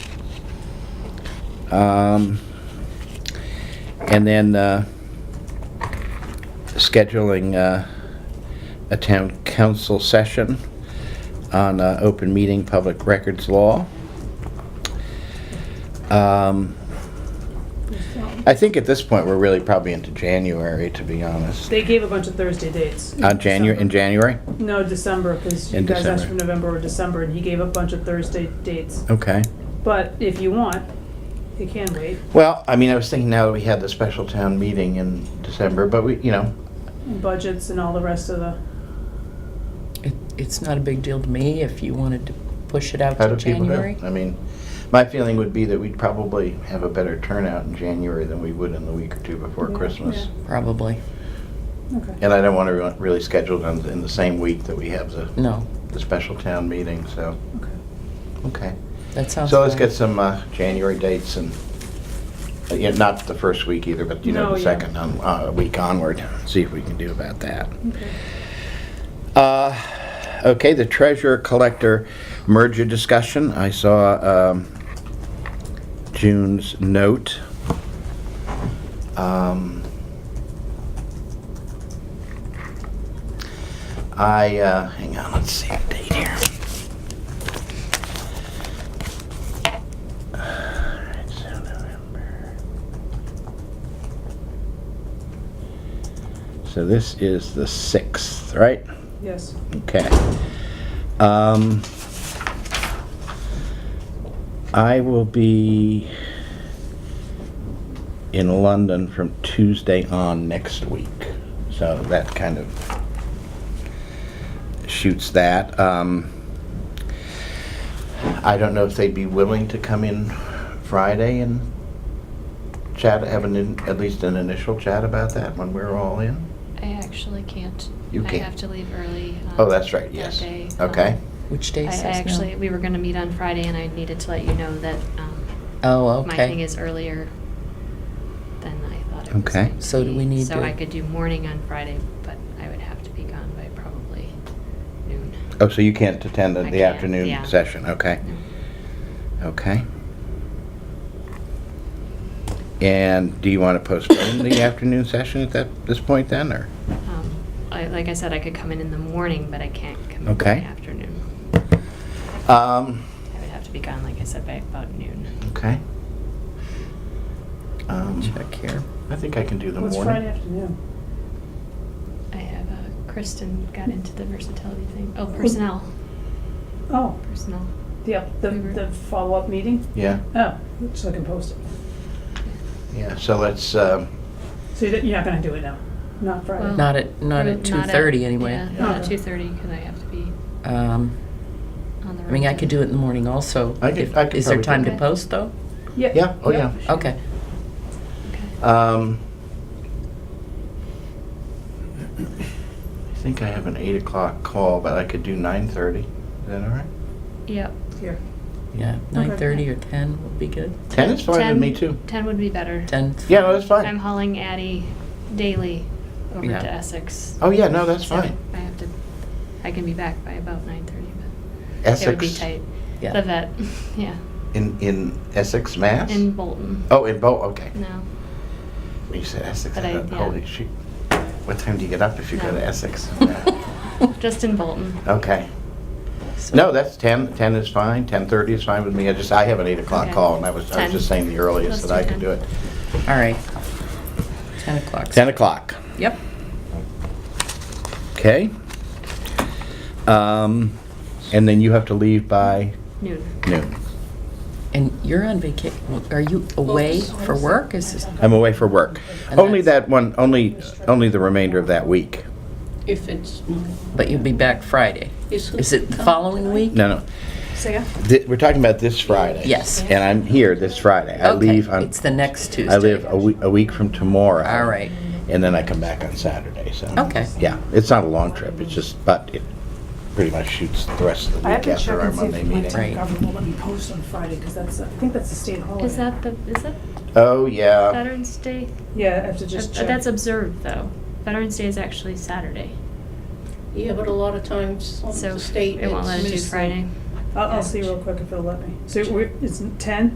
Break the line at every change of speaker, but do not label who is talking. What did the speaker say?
Um, And then uh, scheduling uh, a town council session on uh, open meeting, public records law. Um, I think at this point, we're really probably into January, to be honest.
They gave a bunch of Thursday dates.
On Uh, January, in January?
No, December, because you
In
guys asked
December.
for November or December, and he gave a bunch of Thursday dates.
Okay.
But if you want, you can wait.
Well, I mean, I was thinking now that we had the special town meeting in December, but we, you know,
Budgets and all the rest of the,
It, it's not a big deal to me if you wanted to push it out
how
to
do people
January.
do? I mean, my feeling would be that we'd probably have a better turnout in January than we would in the week or two before
Yeah,
Christmas.
yeah.
Probably.
okay.
And I don't want to really schedule it on- in the same week that we have the,
No,
the special town meeting, so,
Okay.
okay.
that sounds.
So let's
fine.
get some uh, January dates and, uh, yeah, not the first week either, but you know,
No,
the
yeah.
second on- uh, week onward, see if we can do about that.
Okay.
Uh, Okay, the treasurer collector merger discussion. I saw um, June's note. Um, I, uh, hang on, let's see the date here. Alright, so November. So this is the 6th, right?
Yes.
Okay. Um, I will be in London from Tuesday on next week. So that kind of shoots that. Um, I don't know if they'd be willing to come in Friday and chat, have an, in- at least an initial chat about that when we're all in.
I actually can't.
You can't.
I have to leave early. um,
Oh, that's right,
that
yes.
day.
Okay.
Um,
Which
I
day
I
says no?
actually, we were gonna meet on Friday and I needed to let you know that um,
Oh, okay.
my thing is earlier than I thought it was.
Okay.
going to
So do we
be.
need
So
to-
I could do morning on Friday, but I would have to be gone by probably noon.
Oh, so you can't attend
I
the
can't,
afternoon
yeah.
session, okay,
No.
okay. And do you want to postpone the afternoon session at that, this point then, or?
Um, I- Like I said, I could come in in the morning, but I can't come in in the
Okay.
afternoon.
Um,
I would have to be gone, like I said, by about noon.
okay. Um,
Check here.
I think I can do the
What's
morning.
Friday afternoon?
I have, uh, Kristen got into the versatility thing. Oh, personnel,
Oh,
personnel.
yeah, the,
We were-
the follow-up meeting?
Yeah,
Oh, so I can post it.
yeah, so let's, um,
So you're you're not gonna do it now? Not Friday?
Well-
Not at not
Or
at two thirty
Yeah,
anyway.
not at
Okay.
two thirty, because I have to be
Um,
on the road.
I mean, I could do it in the morning also.
I could-
if-
I could
is there
probably do
time to
that.
post though?
yeah, oh yeah.
Okay.
Okay.
Um, I think I have an eight o'clock call, but I could do nine thirty, is that all right?
Yep.
Oh.
Here.
Yeah, nine thirty or ten would be good.
Ten is fine with
10
me too.
Ten would be better.
Ten.
Yeah, no, that's fine.
I'm hauling Addie daily over
Yeah.
to Essex.
Oh, yeah, no, that's
So
fine.
I have to, I can be back by about nine thirty, but
Essex.
it would be tight.
Yeah.
The vet, yeah,
In, in Essex, Mass?
in Bolton.
Oh, in Bo, okay.
No,
When you said Essex,
But
I
I-
thought,
yeah.
holy shit. What time do you get up if you go
No.
to Essex?
just in Bolton.
Okay.
So-
No, that's 10, 10 is fine, 10:30 is fine with me. I just, I have an 8 o'clock
Okay.
call, and I was, I was
10.
just saying the earliest
Let's
that I
do
could
10.
do it.
All right. Ten o'clock.
10 o'clock,
Yep.
okay? Um, And then you have to leave by
Noon.
noon.
And you're on vacation. Are you
Oh,
away for work? Is this?
I'm away for work.
And
Only
that's-
that one, only, only the remainder of that week.
If it's,
Mm-hmm.
But you'll be back Friday. Is it the following week?
No, no.
Say yeah?
Th- We're talking about this Friday.
Yes.
And I'm here this Friday. I
Okay,
leave on.
It's the next Tuesday.
I live a week, a week from tomorrow.
All right.
And then I come back on Saturday, so.
Okay.
Yeah, it's not a long trip, it's just, but it pretty much shoots the rest of the
I have
week
to
after
check
our
and see
Monday
if my
meeting.
town government will let me post on Friday, because that's, I think that's a state holiday.
Is that the, is that
Oh, yeah.
Veterans Day?
Yeah, I have to
Uh,
just check.
That's observed, though. Veterans Day is actually Saturday,
yeah, but a lot of times,
so
the state.
it won't let us do
it's-
Friday.
I'll, I'll see real quick if it'll let me. So we're, it's ten?